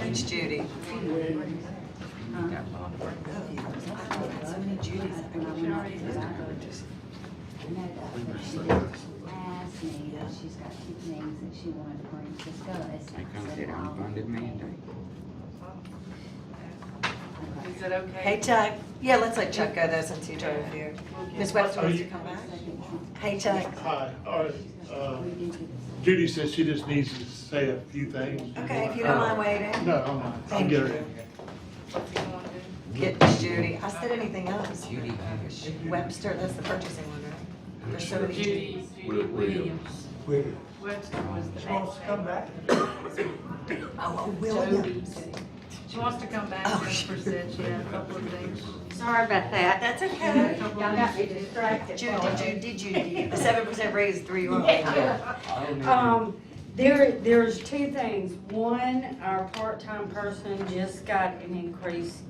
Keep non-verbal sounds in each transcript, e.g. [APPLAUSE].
It's Judy. We were saying this. Asked me, that she's got two things that she wanted for me to discuss. Because it unfunded mandate. Is that okay? Hey Chuck, yeah, let's let Chuck go though since you drove here. Ms. Webster wants to come back? Hey Chuck, Hi, all right, uh, Judy says she just needs to say a few things. okay, if you don't mind waiting, No, I'm not, I'll get her in. get Judy. I said anything else. Judy Harris. Webster, that's the purchasing one, right? There's so many Judy. Judy, Judy Williams. Webster was the. She wants to come back. Oh, oh, William. She wants to come back, Oh, Jennifer said she had a couple of things. Sorry about that. That's A okay. couple Y'all of got me things. distracted. Judy, Judy, Judy, the seven percent raise is three wrong. Oh, no. Um, there, there's two things. One, our part-time person just got an increase.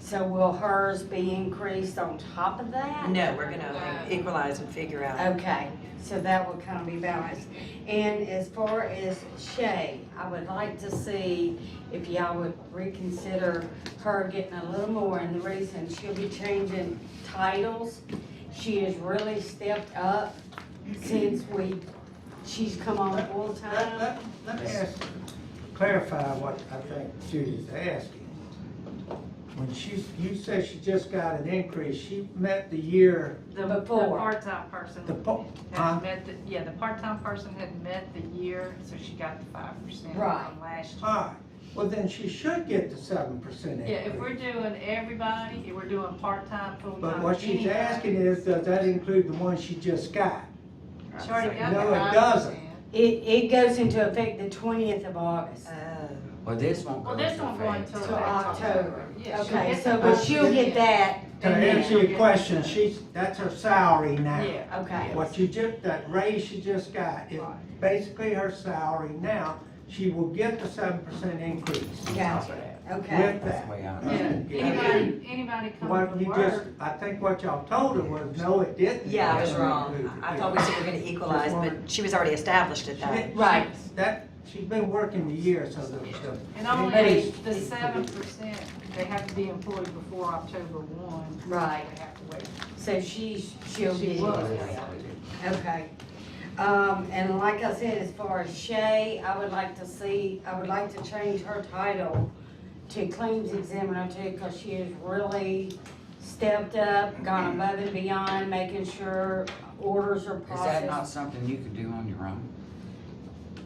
So will hers be increased on top of that? No, we're gonna equalize and figure out. Okay, so that would kind of be balanced. And as far as Shay, I would like to see if y'all would reconsider her getting a little more. And the reason, she'll be changing titles. She has really stepped up since we, she's come on full Let, time. let, let me ask, clarify what I think Judy's asking. When she, you say she just got an increase, she met the year, The, the Before. part-time person the, po- huh? had met, the yeah, the part-time person had met the year, so she got the five percent Right. from last year. All right, well, then she should get the seven percent Yeah, if increase. we're doing everybody, if we're doing part-time, full-time. But what she's anybody, asking is, does that include the one she just got? She already got the No, it five doesn't. percent. It, it goes into effect the twentieth of August. Uh, Oh, Well, this won't go Well, this into won't go effect. until. Till October. Yeah, she'll Okay, get so, the but five she'll get percent. that. To answer your question, she's, that's her salary now. Yeah. Okay. What you just, that raise she just got is basically her salary now. She will get the seven percent increase Gotcha, okay. with That's that. the way I Yeah, know. anybody, anybody What coming to you just, work. I think what y'all told her was, no, it didn't. yeah, I was wrong. I thought we said we we're gonna equalize, but she was already established at that. Right. That, she's been working the year, so the, the. And only increase- the seven percent, they have to be employed before October one. Right. They have to wait. So she's, she'll She be, was. okay. Um, and like I said, as far as Shay, I would like to see, I would like to change her title to claims examiner too, because she has really stepped up, gone above and beyond, making sure orders are Is that not processed. something you could do on your own?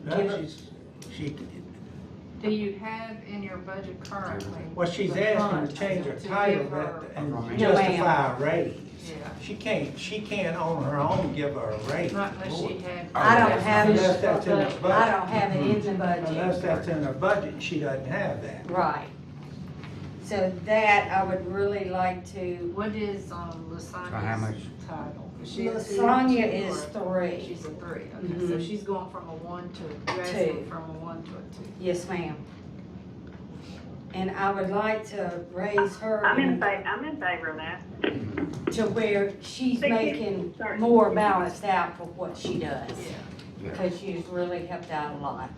No, she's, she, Do you have in your budget currently? well, she's the asking funds to change her to give title her- that- and No, ma'am. justify a raise. Yeah, She can't, she can't on her own give her a raise. not unless she had. I don't have it. Unless that's in her budget. I don't have it in the Mm-hmm. Unless budget. that's in her budget, she doesn't have that. Right. So that I would really like to, What is, um, Lasagna's much? title? Is she a two or Lasagna two is or- three. She's a three, okay, so Mhm. she's going from a one to, a- you're asking Two. from a one to a two. Yes, ma'am. And I would like to raise her I'm in fa, I'm in favor of that. to where she's Thank you. making Sorry. more balanced out for what she does. Yeah. Because she's really helped out a lot.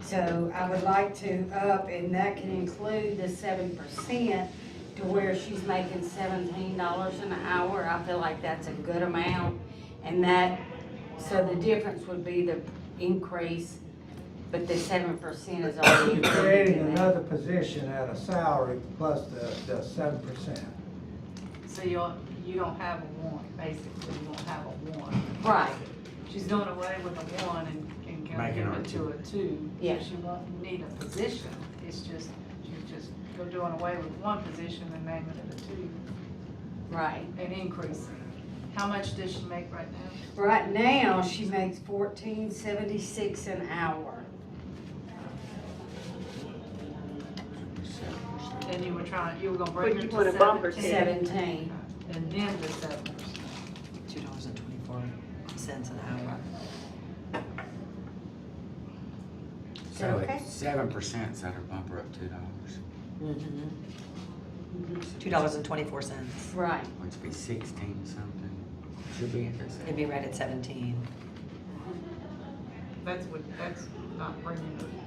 So I would like to up, and that can include the seven percent to where she's making seventeen dollars an hour. I feel like that's a good amount. And that, so the difference would be the increase, but the seven percent is already included [COUGHS] Creating in that. another position at a salary plus the, the seven percent. So you're, you don't have a one, basically, you don't have a one. Right. She's doing away with a one and, and gonna Making give her a it to a two. Yeah. She won't need a position, it's just, she's just, you're doing away with one position and naming it a two, Right. and increasing. How much does she make right now? Right now, she makes fourteen seventy-six an hour. And you were trying, you were gonna bring But her you to put a bumper to seventeen. Seventeen. And then the seven percent. Two dollars and twenty-four cents an hour. So Okay. at seven percent, that'll bump her up two dollars, Mm-hmm. Two dollars and twenty-four cents. Right. which would be sixteen something. Should be at this. It'd be right at seventeen. That's what, that's not bringing